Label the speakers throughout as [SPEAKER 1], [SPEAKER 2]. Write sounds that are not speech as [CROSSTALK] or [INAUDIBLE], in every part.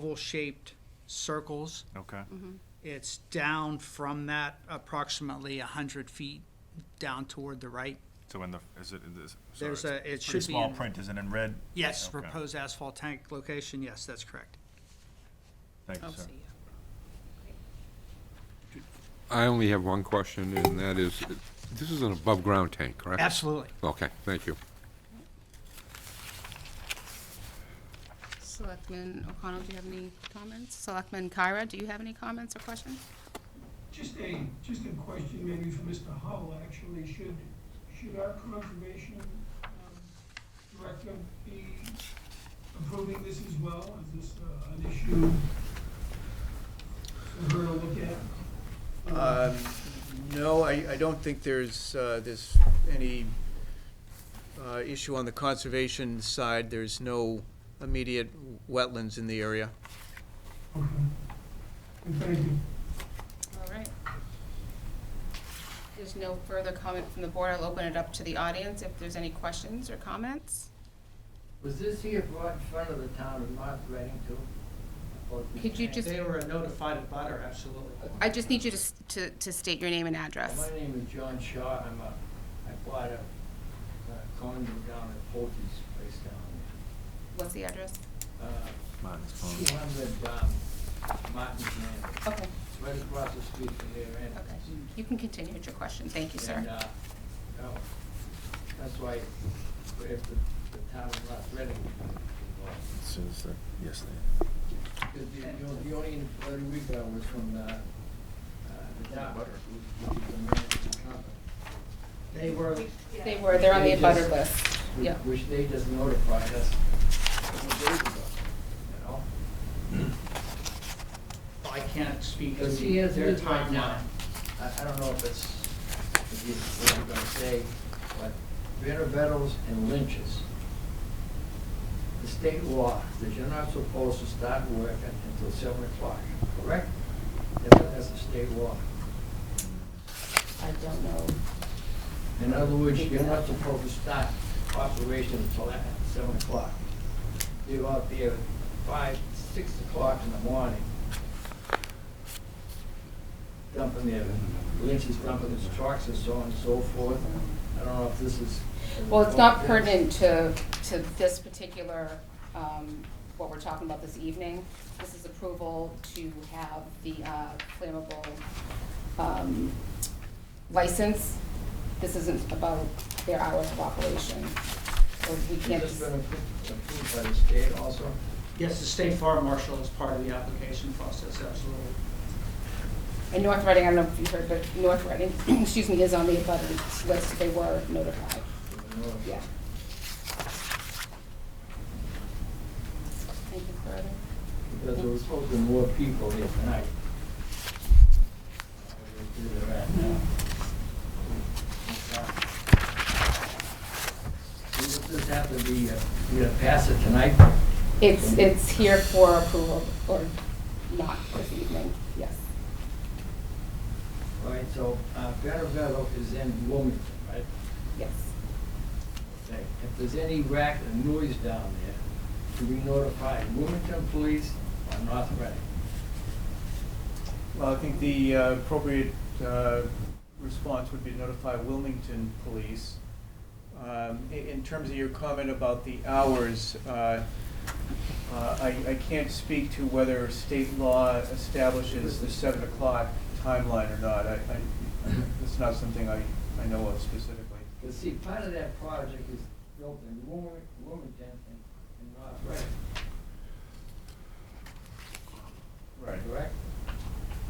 [SPEAKER 1] oval-shaped circles.
[SPEAKER 2] Okay,
[SPEAKER 1] It's down from that approximately 100 feet down toward the right.
[SPEAKER 2] so in the, is it, in this? sorry,
[SPEAKER 1] There's
[SPEAKER 2] it's
[SPEAKER 1] a- it should
[SPEAKER 2] Pretty
[SPEAKER 1] be
[SPEAKER 2] small
[SPEAKER 1] in-
[SPEAKER 2] print, is it in red?
[SPEAKER 1] Yes,
[SPEAKER 2] Okay.
[SPEAKER 1] proposed asphalt tank location, yes, that's correct.
[SPEAKER 2] Thank you,
[SPEAKER 1] Oh,
[SPEAKER 2] sir.
[SPEAKER 3] I only have one question, and that is, this is an above-ground tank, correct?
[SPEAKER 1] Absolutely.
[SPEAKER 3] Okay, thank you.
[SPEAKER 4] Selectman O'Connell, do you have any comments? Selectman Kyra, do you have any comments or questions?
[SPEAKER 5] Just a, just a question maybe for Mr. Howell, actually, should, should our conservation um, director be approving this as well? Is this uh, an issue for her to look at?
[SPEAKER 6] Um, No, I, I don't think there's, uh, there's any uh, issue on the conservation side. There's no immediate wetlands in the area.
[SPEAKER 5] Okay. And thank you.
[SPEAKER 4] All right. There's no further comment from the board. I'll open it up to the audience if there's any questions or comments.
[SPEAKER 7] Was this here brought in front of the town of North Reading too? Or-
[SPEAKER 4] Could you just,
[SPEAKER 1] were a notified butter, absolutely.
[SPEAKER 4] I just need you to, s- to, to state your name and
[SPEAKER 7] My
[SPEAKER 4] address.
[SPEAKER 7] name is John Shaw, I'm a, I bought a uh, condo down at Polte's place down
[SPEAKER 4] What's the address?
[SPEAKER 2] Martin's phone.
[SPEAKER 7] there. Uh, Two hundred Martin's Lane,
[SPEAKER 4] Okay,
[SPEAKER 7] it's right across the street from their entrance.
[SPEAKER 4] okay.
[SPEAKER 7] uh,
[SPEAKER 4] You can continue with your question. Thank you,
[SPEAKER 7] And,
[SPEAKER 4] sir.
[SPEAKER 7] uh, no, that's why, if the, the town of North Reading,
[SPEAKER 2] It says that, yes,
[SPEAKER 7] the, the- the only, the only we got was from, uh, uh, the town, which is the management company.
[SPEAKER 1] They were.
[SPEAKER 4] They were, they're on the
[SPEAKER 7] They just-
[SPEAKER 4] abutter list.
[SPEAKER 7] which-
[SPEAKER 4] Yeah.
[SPEAKER 7] Which they just notified us a couple days ago, you know?
[SPEAKER 1] I can't speak to
[SPEAKER 7] Because he has
[SPEAKER 1] their
[SPEAKER 7] his right
[SPEAKER 1] timeline.
[SPEAKER 7] now. I, I don't know if it's, if you, what I'm gonna say, but Vanderbilt and lynches. The state law that you're not supposed to start working until seven o'clock, correct? That's, that's the state law.
[SPEAKER 4] I don't know.
[SPEAKER 7] In other words, you're not supposed to start operation until at seven o'clock. You're out there at five, six o'clock in the morning. Dumping their, Lynch is dumping his trucks and so on and so forth. I don't know if this is.
[SPEAKER 4] Well, it's not pertinent to, to this particular, um, what we're talking about this evening. This is approval to have the uh, flammable um, license. This isn't about their hours of operation. So we
[SPEAKER 7] It's
[SPEAKER 4] can't,
[SPEAKER 7] just been appro- approved by the state also.
[SPEAKER 1] Yes, the state farm marshal is part of the application process, absolutely.
[SPEAKER 4] and North Reading, I don't know if you heard, but North Reading, [CLEARS THROAT] excuse me, is on the abutters list. They were notified,
[SPEAKER 7] you know.
[SPEAKER 4] yeah. Thank you, further.
[SPEAKER 7] Because there was supposed to be more people here tonight. Where they're at now. Does this have to be, uh, we gotta pass it tonight?
[SPEAKER 4] It's, it's here for approval or not this evening, yes.
[SPEAKER 7] All right, so uh, Better Meadow is in Wilmington, right?
[SPEAKER 4] Yes.
[SPEAKER 7] Okay. If there's any rack and noise down there, do we notify Wilmington Police or North Reading?
[SPEAKER 6] Well, I think the uh, appropriate uh, response would be to notify Wilmington Police. Um, i- In terms of your comment about the hours, uh, uh, I I can't speak to whether state law establishes the seven o'clock timeline or not. I- I- It's not something I I know of specifically.
[SPEAKER 7] Because see, part of that project is built in Wilmington and and North Reading, correct?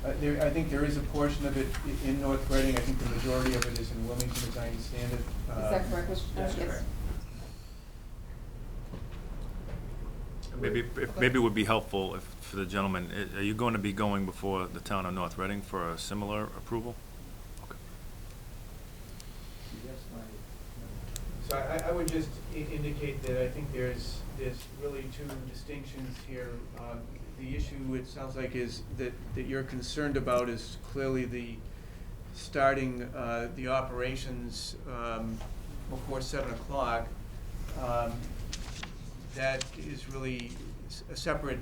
[SPEAKER 6] Uh, There, I think there is a portion of it i- in North Reading. I think the majority of it is in Wilmington, as I understand it.
[SPEAKER 4] Is that
[SPEAKER 6] Um,
[SPEAKER 4] correct, Mr.
[SPEAKER 6] that's
[SPEAKER 4] Yes.
[SPEAKER 6] correct.
[SPEAKER 2] Maybe, if- maybe it would be helpful if, for the gentleman, i- are you going to be going before the town of North Reading for a similar approval?
[SPEAKER 7] Yes, my,
[SPEAKER 6] So I, I would just i- indicate that I think there's, there's really two distinctions here. Um, The issue, it sounds like, is that, that you're concerned about is clearly the starting, uh, the operations, um, before seven o'clock. Um, That is really s- a separate